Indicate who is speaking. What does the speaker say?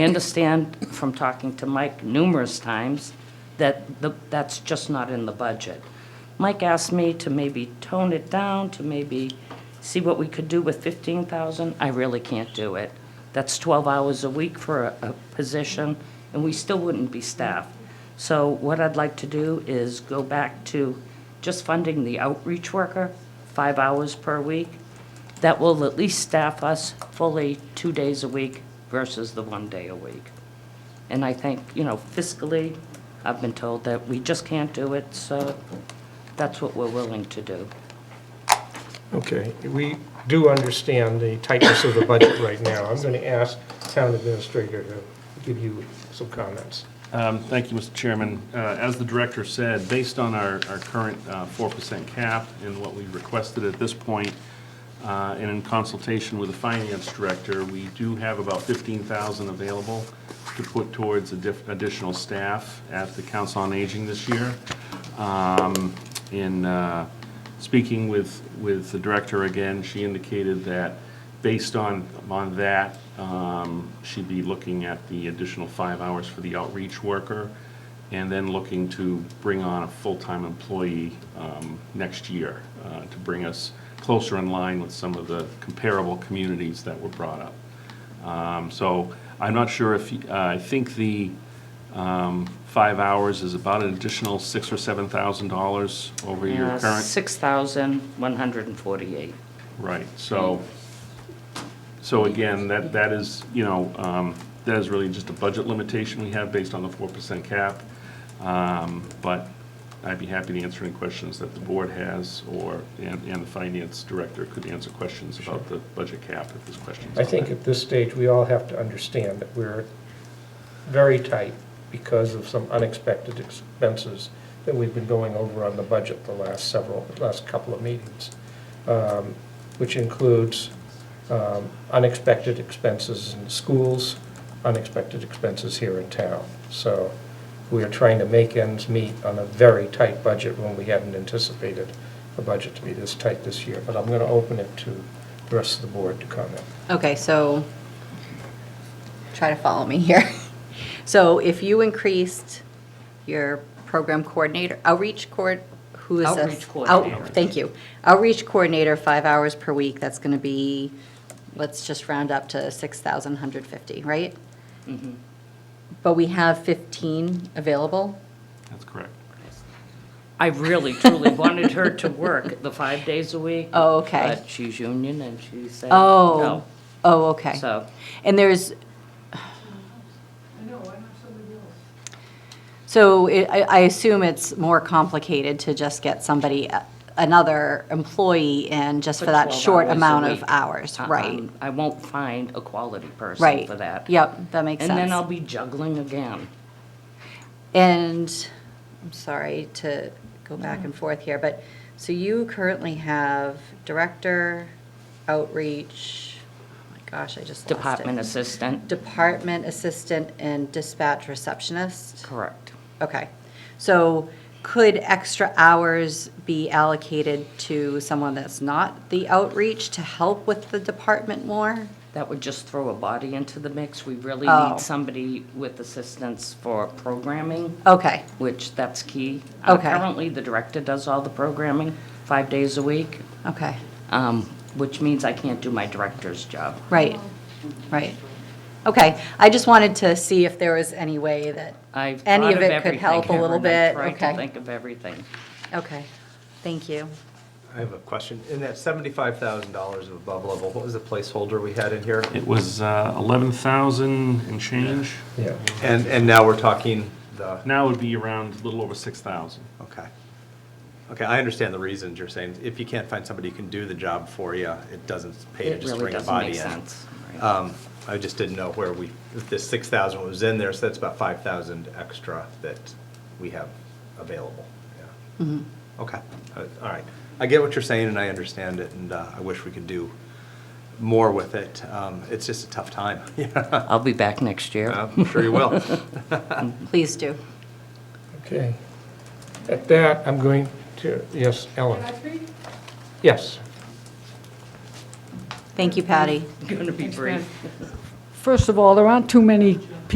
Speaker 1: I understand from talking to Mike numerous times that the- that's just not in the budget. Mike asked me to maybe tone it down, to maybe see what we could do with 15,000. I really can't do it. That's 12 hours a week for a a position, and we still wouldn't be staffed. So what I'd like to do is go back to just funding the outreach worker, five hours per week. That will at least staff us fully two days a week versus the one day a week. And I think, you know, fiscally, I've been told that we just can't do it, so that's what we're willing to do.
Speaker 2: Okay, we do understand the tightness of the budget right now. I'm going to ask town administrator to give you some comments.
Speaker 3: Um, Thank you, Mr. Chairman. Uh, As the director said, based on our our current uh, 4% cap and what we've requested at this point, uh, and in consultation with the finance director, we do have about 15,000 available to put towards addi- additional staff at the Council on Aging this year. Um, In uh, speaking with, with the director again, she indicated that based on, on that, um, she'd be looking at the additional five hours for the outreach worker, and then looking to bring on a full-time employee um, next year uh, to bring us closer in line with some of the comparable communities that were brought up. Um, So I'm not sure if, uh, I think the um, five hours is about an additional six or seven thousand dollars over your
Speaker 1: Uh,
Speaker 3: current.
Speaker 1: 6,148.
Speaker 3: Right, so, so again, that, that is, you know, um, that is really just a budget limitation we have based on the four percent cap. Um, But I'd be happy to answer any questions that the board has, or, and, and the finance director could answer questions about the budget cap if there's questions.
Speaker 2: I think at this stage, we all have to understand that we're very tight because of some unexpected expenses that we've been going over on the budget the last several, last couple of meetings, um, which includes um, unexpected expenses in schools, unexpected expenses here in town. So we are trying to make ends meet on a very tight budget when we hadn't anticipated the budget to be this tight this year. But I'm going to open it to the rest of the board to comment.
Speaker 4: Okay, so try to follow me here. So if you increased your program coordinator, outreach coord, who is this?
Speaker 1: Outreach
Speaker 4: Out-
Speaker 1: coordinator.
Speaker 4: Thank you. Outreach coordinator, five hours per week, that's going to be, let's just round up to 6,150, right?
Speaker 1: Mm-hmm.
Speaker 4: But we have 15 available?
Speaker 3: That's correct.
Speaker 1: I really truly wanted her to work the five days a week.
Speaker 4: Oh, okay.
Speaker 1: But she's union and she said
Speaker 4: Oh,
Speaker 1: no.
Speaker 4: oh, okay.
Speaker 1: So
Speaker 4: And there's. So it- I, I assume it's more complicated to just get somebody, uh, another employee in just
Speaker 1: For
Speaker 4: for that
Speaker 1: 12
Speaker 4: short
Speaker 1: hours a
Speaker 4: amount of
Speaker 1: week.
Speaker 4: hours,
Speaker 1: I-
Speaker 4: right?
Speaker 1: I'm- I won't find a quality person
Speaker 4: Right.
Speaker 1: for that.
Speaker 4: Yep, that makes
Speaker 1: And then I'll
Speaker 4: sense.
Speaker 1: be juggling again.
Speaker 4: And, I'm sorry to go back and forth here, but, so you currently have director, outreach, oh my gosh, I just lost it.
Speaker 1: Department assistant,
Speaker 4: Department assistant and dispatch receptionist?
Speaker 1: correct.
Speaker 4: Okay. So could extra hours be allocated to someone that's not the outreach to help with the department more?
Speaker 1: That would just throw a body into the mix. We really
Speaker 4: Oh.
Speaker 1: need somebody with assistance for programming,
Speaker 4: Okay,
Speaker 1: which that's key. Uh,
Speaker 4: Okay.
Speaker 1: Currently, the director does all the programming, five days a week,
Speaker 4: okay,
Speaker 1: um, which means I can't do my director's job.
Speaker 4: right, right. Okay, I just wanted to see if there was any way that,
Speaker 1: I've
Speaker 4: Any
Speaker 1: thought
Speaker 4: of it could
Speaker 1: everything,
Speaker 4: help a little
Speaker 1: Erin.
Speaker 4: bit,
Speaker 1: I've tried to
Speaker 4: okay.
Speaker 1: think of everything.
Speaker 4: okay, thank you.
Speaker 5: I have a question. In that seventy-five thousand dollars of above level, what was the placeholder we had in here?
Speaker 3: It was uh, 11,000 and change.
Speaker 2: Yeah.
Speaker 5: And, and now we're talking the,
Speaker 3: Now would be around a little over 6,000.
Speaker 5: okay. Okay, I understand the reasons you're saying. If you can't find somebody who can do the job for you, it doesn't pay to
Speaker 1: It
Speaker 5: just
Speaker 1: really
Speaker 5: bring a
Speaker 1: doesn't make
Speaker 5: body in.
Speaker 1: sense. right.
Speaker 5: Um, I just didn't know where we, if this six thousand was in there, so that's about five thousand extra that we have available. Yeah. Okay, Uh, all right. I get what you're saying and I understand it and uh, I wish we could do more with it. Um, It's just a tough time. Yeah,
Speaker 1: I'll be back next year.
Speaker 5: I'm sure you will.
Speaker 4: Please do.
Speaker 2: Okay. At that, I'm going to, yes, Ellen? Yes.
Speaker 4: Thank you, Patty.
Speaker 1: Going to be brief.
Speaker 6: first of all, there aren't too many